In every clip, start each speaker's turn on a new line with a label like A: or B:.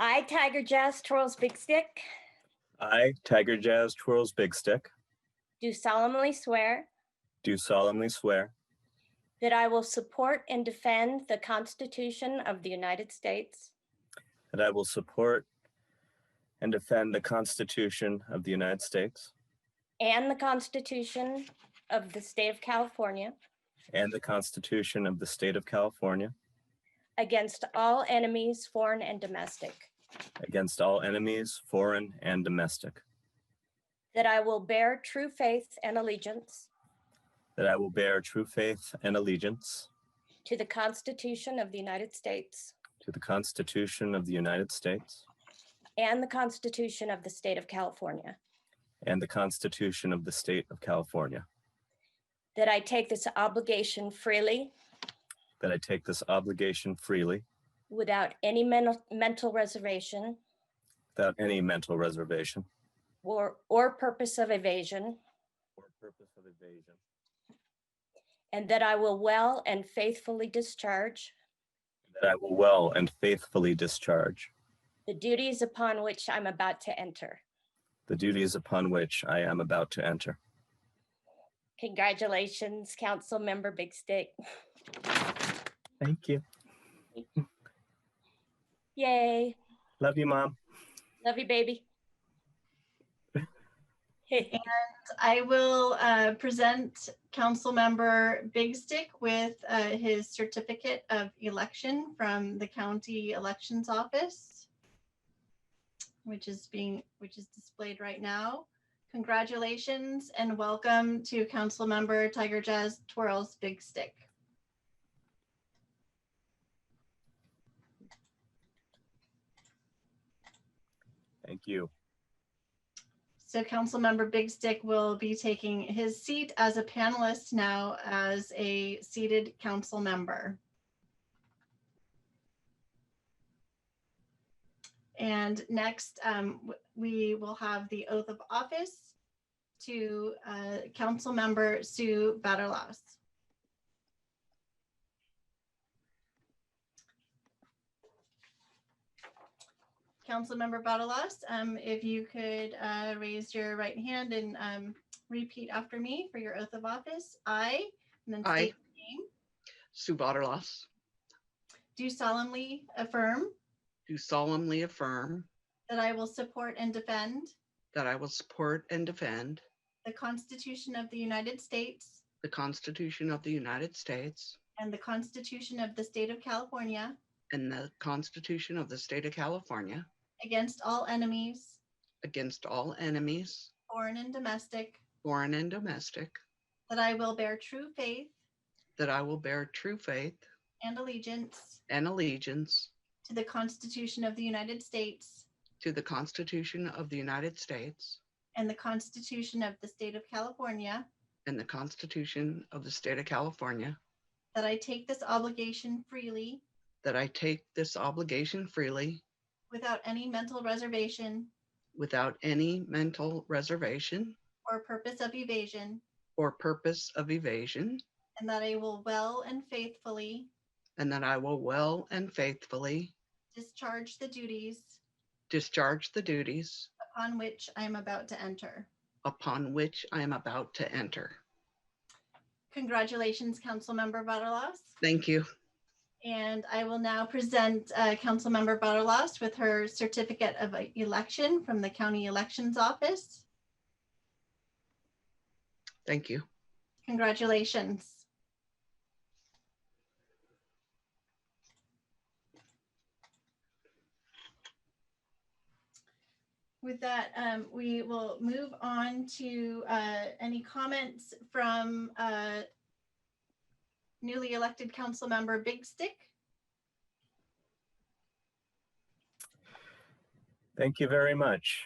A: I, Tiger Jazz Twirls Big Stick,
B: I, Tiger Jazz Twirls Big Stick,
A: do solemnly swear
B: do solemnly swear
A: that I will support and defend the Constitution of the United States
B: that I will support and defend the Constitution of the United States
A: and the Constitution of the State of California
B: and the Constitution of the State of California
A: against all enemies, foreign and domestic,
B: against all enemies, foreign and domestic,
A: that I will bear true faith and allegiance
B: that I will bear true faith and allegiance
A: to the Constitution of the United States
B: to the Constitution of the United States
A: and the Constitution of the State of California,
B: and the Constitution of the State of California,
A: that I take this obligation freely
B: that I take this obligation freely
A: without any mental, mental reservation
B: without any mental reservation
A: or, or purpose of evasion,
B: or purpose of evasion,
A: and that I will well and faithfully discharge
B: that I will well and faithfully discharge
A: the duties upon which I'm about to enter.
B: the duties upon which I am about to enter.
A: Congratulations, Council Member Big Stick.
B: Thank you.
A: Yay.
B: Love you, Mom.
A: Love you, baby.
C: I will uh, present Councilmember Big Stick with uh, his certificate of election from the County Elections Office, which is being, which is displayed right now. Congratulations and welcome to Councilmember Tiger Jazz Twirls Big Stick.
B: Thank you.
C: So Councilmember Big Stick will be taking his seat as a panelist now as a seated council member. And next, um, w- we will have the oath of office to uh, Councilmember Sue Batterlaus. Councilmember Batalaus, um, if you could, uh, raise your right hand and, um, repeat after me for your oath of office. I, and then
D: I.
C: state your name,
D: Sue Vaterlas,
C: do solemnly affirm
D: do solemnly affirm
C: that I will support and defend
D: that I will support and defend
C: the Constitution of the United States
D: the Constitution of the United States
C: and the Constitution of the State of California
D: and the Constitution of the State of California
C: against all enemies,
D: against all enemies,
C: foreign and domestic,
D: foreign and domestic,
C: that I will bear true faith
D: that I will bear true faith
C: and allegiance
D: and allegiance
C: to the Constitution of the United States
D: to the Constitution of the United States
C: and the Constitution of the State of California,
D: and the Constitution of the State of California,
C: that I take this obligation freely
D: that I take this obligation freely
C: without any mental reservation
D: without any mental reservation
C: or purpose of evasion,
D: or purpose of evasion,
C: and that I will well and faithfully
D: and that I will well and faithfully
C: discharge the duties
D: discharge the duties
C: upon which I am about to enter.
D: upon which I am about to enter.
C: Congratulations, Councilmember Butterlos.
D: Thank you.
C: And I will now present uh, Councilmember Butterlos with her certificate of uh, election from the County Elections Office.
D: Thank you.
C: Congratulations. With that, um, we will move on to uh, any comments from uh, newly elected council member Big Stick.
B: Thank you very much.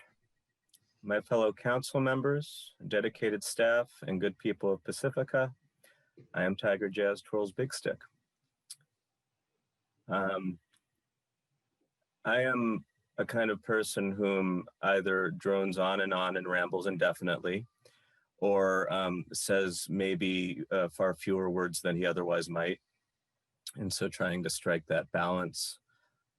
B: My fellow council members, dedicated staff, and good people of Pacifica, I am Tiger Jazz Twirls Big Stick. Um, I am a kind of person whom either drones on and on and rambles indefinitely, or um, says maybe uh, far fewer words than he otherwise might. And so trying to strike that balance